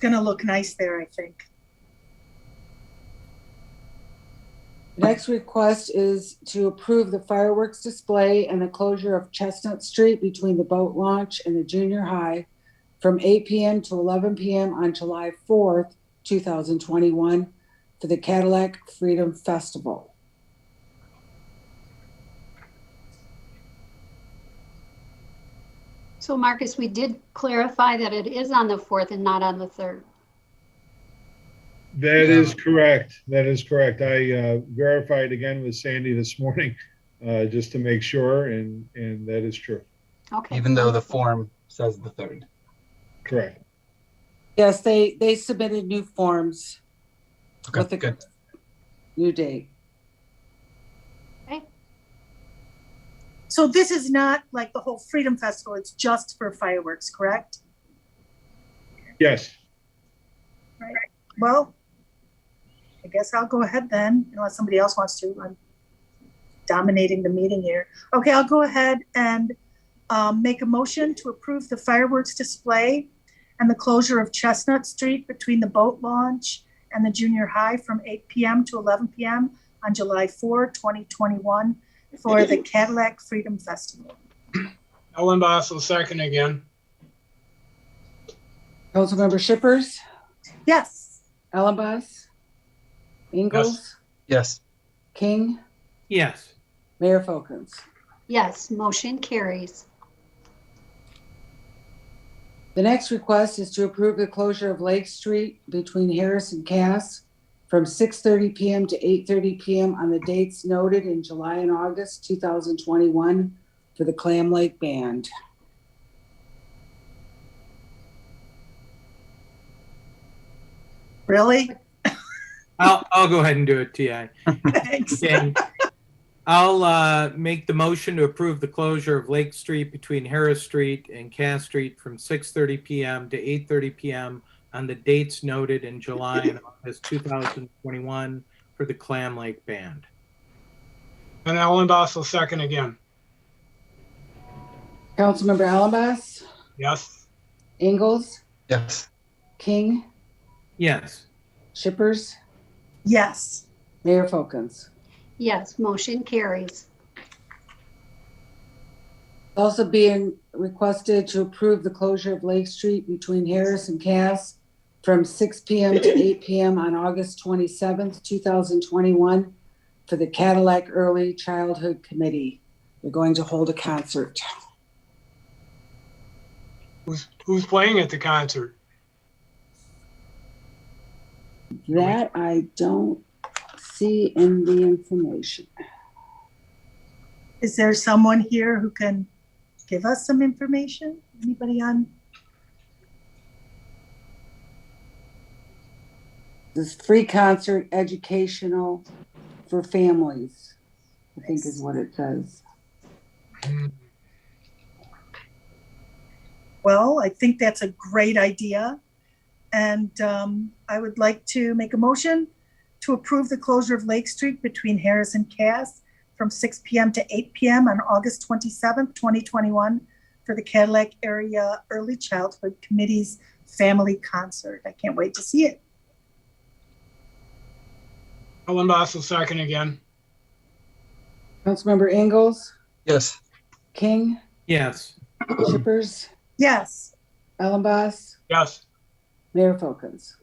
gonna look nice there, I think. Next request is to approve the fireworks display and the closure of Chestnut Street between the boat launch and the junior high from 8 PM to 11 PM on July 4th, 2021 for the Cadillac Freedom Festival. So Marcus, we did clarify that it is on the 4th and not on the 3rd. That Yeah. is correct. That is correct. I uh, verified again with Sandy this morning uh, just to make sure, and and that is true. Okay. even though the form says the third. Correct. Yes, they, they submitted new forms with Okay, the good. new date. So this is not like the whole Freedom Festival, it's just for fireworks, correct? Yes. Well, I guess I'll go ahead then, unless somebody else wants to. I'm dominating the meeting here. Okay, I'll go ahead and um, make a motion to approve the fireworks display and the closure of Chestnut Street between the boat launch and the junior high from 8 p.m. to 11 p.m. on July 4, 2021 for the Cadillac Freedom Festival. Ellen Boss will second again. Councilmember Shippers, Yes. Alabas, Ingalls, Yes, King, Yes. Mayor Folkins. Yes, motion carries. The next request is to approve the closure of Lake Street between Harris and Cass from 6:30 PM to 8:30 PM on the dates noted in July and August 2021 for the Clam Lake Band. Really? I'll, I'll go ahead and do it, TI. Thanks. And I'll uh, make the motion to approve the closure of Lake Street between Harris Street and Cass Street from 6:30 PM to 8:30 PM on the dates noted in July and August 2021 for the Clam Lake Band. And Ellen Boss will second again. Councilmember Alabas, Yes. Ingalls, yes, King, Yes. Shippers, Yes. Mayor Folkins. Yes, motion carries. Also being requested to approve the closure of Lake Street between Harris and Cass from 6 PM to 8 PM on August 27th, 2021 for the Cadillac Early Childhood Committee. They're going to hold a concert. Who's, who's playing at the concert? That I don't see in the information. Is there someone here who can give us some information? Anybody on? This free concert, educational for families, I think is what it says. Well, I think that's a great idea. And um, I would like to make a motion to approve the closure of Lake Street between Harris and Cass from 6 p.m. to 8 p.m. on August 27th, 2021 for the Cadillac Area Early Childhood Committee's Family Concert. I can't wait to see it. Ellen Boss will second again. Councilmember Ingalls, yes, King, Yes. Shippers, Yes. Allenboss, Yes. Mayor Folkins.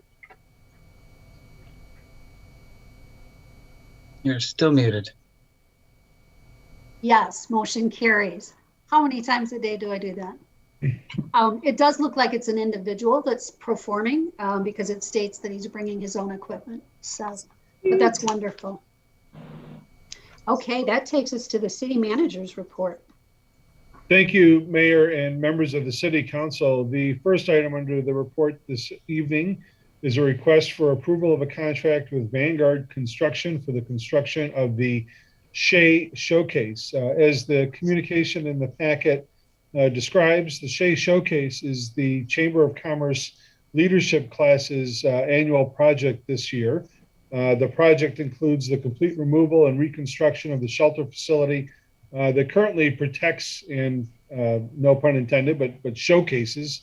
you're still muted. Yes, motion carries. How many times a day do I do that? Um, It does look like it's an individual that's performing um, because it states that he's bringing his own equipment. So, but that's wonderful. Okay, that takes us to the city manager's report. Thank you, Mayor and members of the City Council. The first item under the report this evening is a request for approval of a contract with Vanguard Construction for the construction of the Shea Showcase. Uh, As the communication in the packet uh, describes, the Shea Showcase is the Chamber of Commerce Leadership Class's uh, annual project this year. Uh, The project includes the complete removal and reconstruction of the shelter facility uh, that currently protects and uh, no pun intended, but but showcases